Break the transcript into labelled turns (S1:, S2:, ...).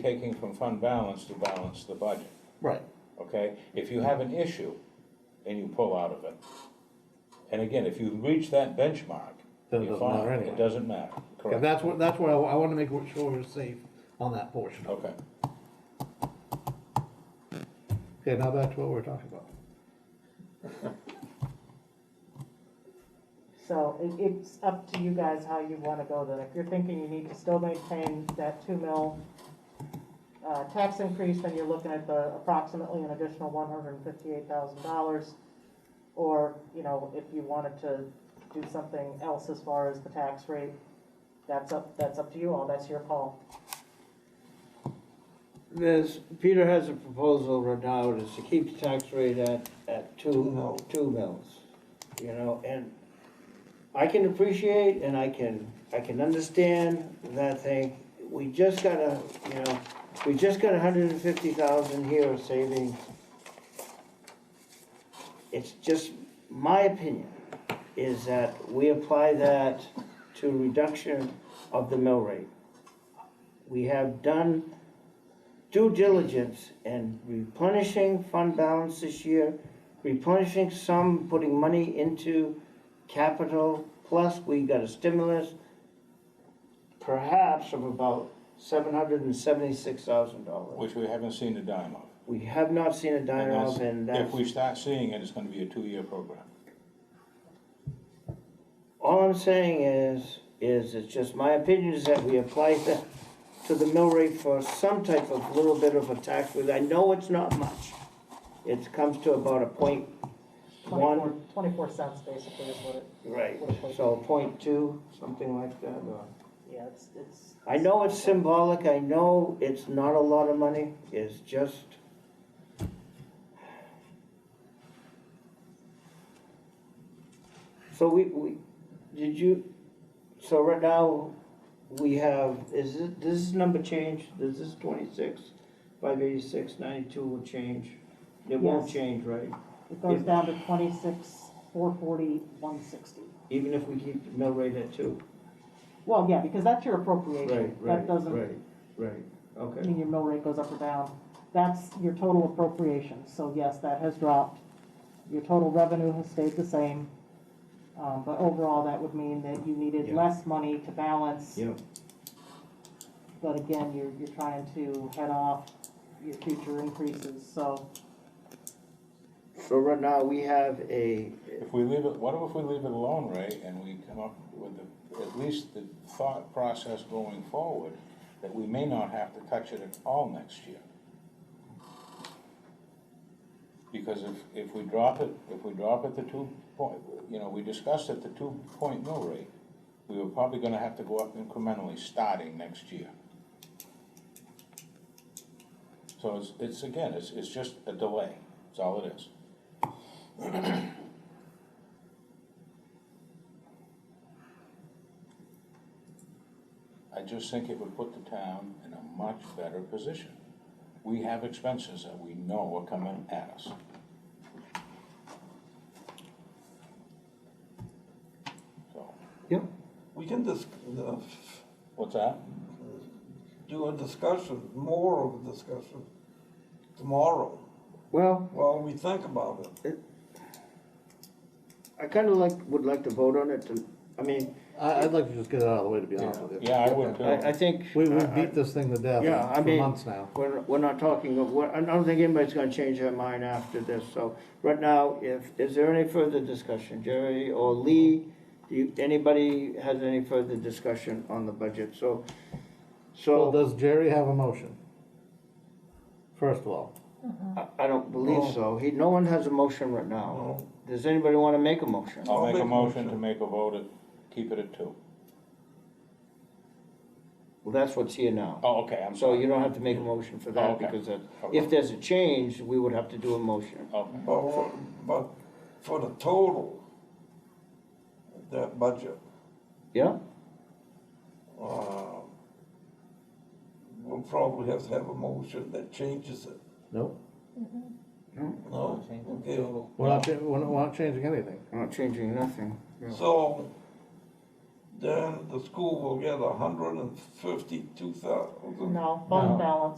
S1: taking from fund balance to balance the budget,
S2: Right.
S1: okay? If you have an issue and you pull out of it, and again, if you reach that benchmark,
S2: Then it
S1: you're
S2: doesn't matter
S1: fine,
S2: anyway.
S1: it doesn't matter,
S2: And
S1: correct?
S2: that's what, that's why I, I wanna make sure we're safe on that portion.
S1: Okay,
S2: Okay, now back to what we we're talking about.
S3: So it, it's up to you guys how you wanna go then. If you're thinking you need to still maintain that two mil uh, tax increase, then you're looking at the approximately an additional one hundred and fifty-eight thousand dollars. Or, you know, if you wanted to do something else as far as the tax rate, that's up, that's up to you all, that's your call.
S4: This, Peter has a proposal right now, is to keep the tax rate at, at two, two mils, you know, and I can appreciate and I can, I can understand that thing, we just got a, you know, we just got a hundred and fifty thousand here of savings. It's just, my opinion is that we apply that to reduction of the mill rate. We have done due diligence and replenishing fund balance this year, replenishing some, putting money into capital, plus we got a stimulus, perhaps of about seven hundred and seventy-six thousand dollars.
S1: which we haven't seen a dime of.
S4: We have not seen a
S1: And
S4: dime
S1: that's-
S4: of, and
S1: If
S4: that's,
S1: we start seeing it, it's gonna be a two-year program.
S4: all I'm saying is, is it's just my opinion is that we apply that to the mill rate for some type of little bit of a tax, relief. I know it's not much. It comes to about a point one.
S3: Twenty-four, twenty-four cents basically is what it,
S4: Right, so point two, something like that. or-
S3: yeah, it's, it's.
S4: I know it's symbolic, I know it's not a lot of money, it's just. So we, we, did you, so right now, we have, is it, does this number change? Does this twenty-six, five eighty-six, ninety-two will change? It won't
S3: Yes.
S4: change, right?
S3: It goes down to twenty-six, four forty, one sixty.
S4: Even if we keep the mill rate at two?
S3: Well, yeah, because that's your appropriation. That doesn't
S4: Right, right, okay.
S3: mean your mill rate goes up or down. That's your total appropriation. So yes, that has dropped. Your total revenue has stayed the same. Um, but overall, that would mean that you needed
S4: Yeah.
S3: less money to balance.
S4: Yeah,
S3: But again, you're, you're trying to head off your future increases, so.
S4: so right now we have a,
S1: If we leave it, what if we leave it alone, Ray, and we come up with the, at least the thought process going forward, that we may not have to touch it at all next year? Because if, if we drop it, if we drop it to two point, you know, we discussed at the two point mill rate, we were probably gonna have to go up incrementally starting next year. So it's, it's again, it's, it's just a delay, that's all it is. I just think it would put the town in a much better position. We have expenses that we know are coming at us. So,
S5: We can dis- uh, f-
S1: what's that?
S5: do a discussion, more of a discussion tomorrow
S4: well,
S5: while we think about it.
S4: I kinda like, would like to vote on it to, I mean,
S2: I, I'd like to just get it out of the way, to be honest with you.
S1: Yeah, I would
S4: I, I
S1: too.
S4: think.
S2: We, we beat this thing to death
S4: Yeah, I
S2: for
S4: mean-
S2: months now.
S4: We're, we're not talking of, we're- I don't think anybody's gonna change their mind after this, so, right now, if, is there any further discussion, Jerry or Lee? Do you, anybody has any further discussion on the budget, so,
S2: Well,
S4: so,
S2: does Jerry have a motion? First of all,
S4: I- I don't
S2: Oh.
S4: believe so, he, no one has a motion right now. Does anybody wanna make a motion?
S1: I'll make a motion to make a vote at, keep it at two.
S4: Well, that's what's here now.
S1: Oh, okay, I'm
S4: So
S1: sorry.
S4: you don't have to make a motion for
S1: Oh,
S4: that,
S1: okay.
S4: because that-
S1: Okay.
S4: if there's a change, we would have to do a motion.
S1: Okay.
S5: But, we're- but for the total, that budget,
S4: Yeah?
S5: uh, we'll probably have to have a motion that changes it.
S2: no,
S5: No? Okay.
S2: we're not, cha- we're not- we're not changing anything.
S4: We're not changing nothing.
S5: So then the school will get a hundred and fifty-two thousand.
S3: No, fund balance.